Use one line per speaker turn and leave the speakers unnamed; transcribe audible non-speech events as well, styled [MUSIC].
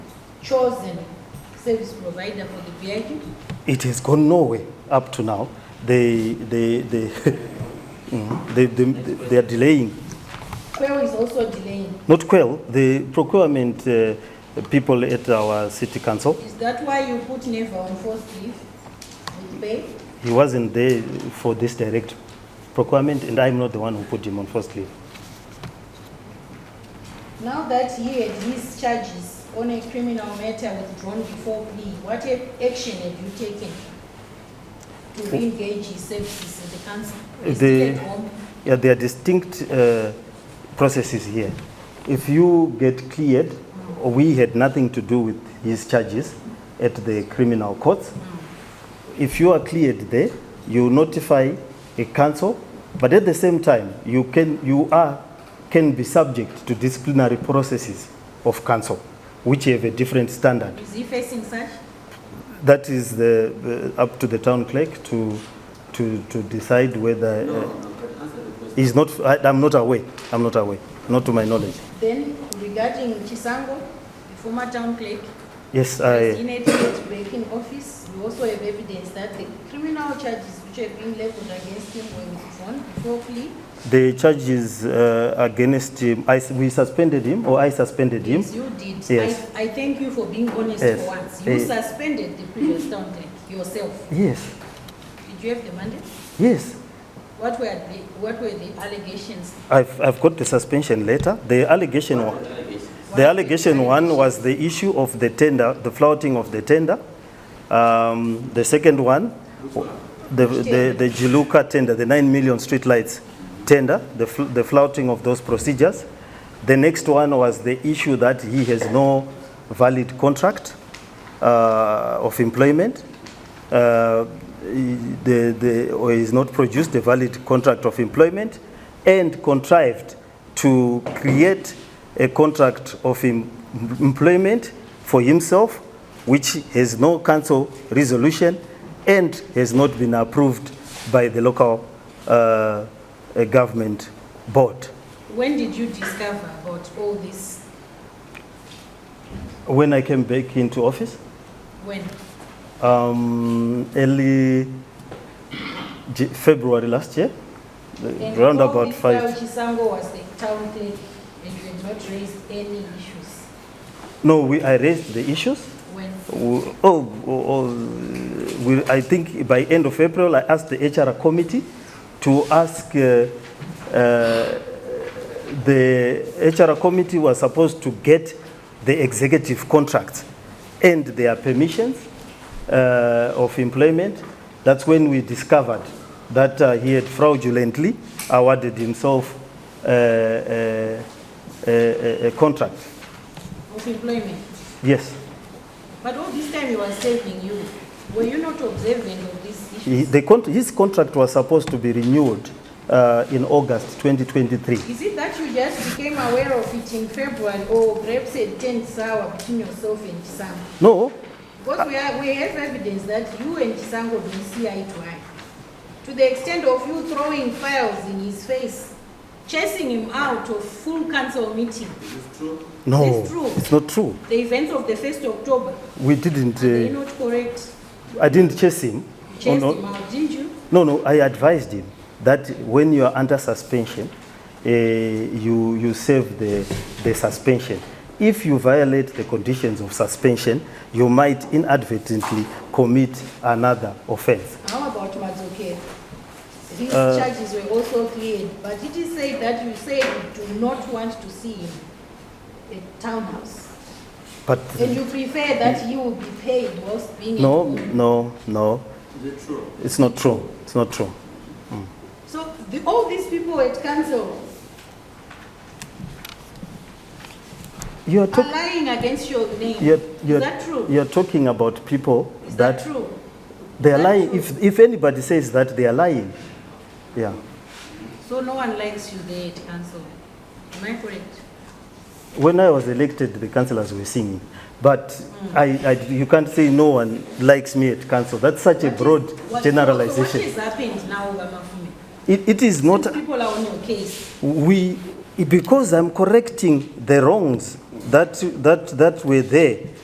chosen service provider for the village?
It has gone nowhere up to now. They, they, they, [LAUGHS] Mm, they, they, they are delaying.
Quail is also delaying.
Not Quell, the procurement uh, people at our city council.
Is that why you put Neva on forced leave with pay?
He wasn't there for this direct procurement, and I'm not the one who put him on first leave.
Now that he had his charges on a criminal matter withdrawn before plea, what a- action have you taken to re-engage his services in the council? Is he
The-
at home?
Yeah, there are distinct uh, processes here. If you get cleared, we had nothing to do with his charges at the criminal courts. If you are cleared there, you notify a council, but at the same time, you can, you are, can be subject to disciplinary processes of council, which have a different standard.
Is he facing such?
That is the, the- up to the town clerk to, to, to decide whether. uh, He's not, I- I'm not aware, I'm not aware, not to my knowledge.
Then regarding Chisango, the former town clerk, As
Yes, I,
in at late break in office, we also have evidence that the criminal charges which have been leveled against him were withdrawn before plea.
the charges uh, against him, I, we suspended him, or I suspended him.
Yes, you did.
Yes.
I, I thank you for being honest
Yes.
for once. You
Eh.
suspended the previous town clerk yourself.
Yes,
Did you have the mandate?
yes.
What were the, what were the allegations?
I've, I've got the suspension letter. The allegation, one, the allegation one was the issue of the tender, the flouting of the tender. Um, the second one, the, the, the Jiluka tender, the nine million streetlights tender, the, fl- the flouting of those procedures. The next one was the issue that he has no valid contract uh, of employment. Uh, he- the, the, or is not produced a valid contract of employment and contrived to create a contract of em- employment for himself, which has no council resolution and has not been approved by the local uh, uh, government board.
When did you discover about all this?
When I came back into office,
When?
um, early J- February last year,
And
around
all
about
this
five.
while Chisango was the town clerk and you had not raised any issues.
No, we, I raised the issues.
When?
We- Oh, oh, oh, we, I think by end of April, I asked the HR committee to ask, uh, uh, the HR committee was supposed to get the executive contracts and their permissions uh, of employment. That's when we discovered that uh, he had fraudulently awarded himself uh, uh, a, a, a contract.
Of employment.
Yes.
But all this time he was saving you. Were you not observant of this issue?
He- The, con- his contract was supposed to be renewed uh, in August 2023.
Is it that you just became aware of it in February Oh, or perhaps it turned sour between yourself and Chisango?
No,
Because we, are, we have evidence that you and Chisango don't see eye to eye. To the extent of you throwing files in his face, chasing him out of full council meeting,
no,
It's true.
not true.
the events of the 1st October,
We didn't.
are they
Uh,
not correct?
I didn't chase him.
You
Oh,
Chased
no.
him out, didn't you?
No, no, I advised him that when you are under suspension, uh, you, you serve the, the suspension. If you violate the conditions of suspension, you might inadvertently commit another offense.
How about Mazoke? These
Uh,
charges were also cleared, but did he say that you said you do not want to see him at townhouse?
But
And you prefer that he will be paid whilst being at
no,
home?
no, no,
Is it true?
it's not true. It's not true.
So the, all these people at council
You are
are
talking.
lying against your name.
You're, you're,
Is that true?
You're talking about people
Is
that,
that true?
they are
that
lying.
true?
If, if anybody says that, they are lying. Yeah.
So no one likes you there at council. Am I correct?
When I was elected, the councillors were singing. But
Mm.
I, I, you can't say no one likes me at council. That's such a
What is-
broad
what- So
generalization.
what has happened now, Bamafume?
it, it is not.
Since people are on your case,
we because I'm correcting the wrongs that, that, that were there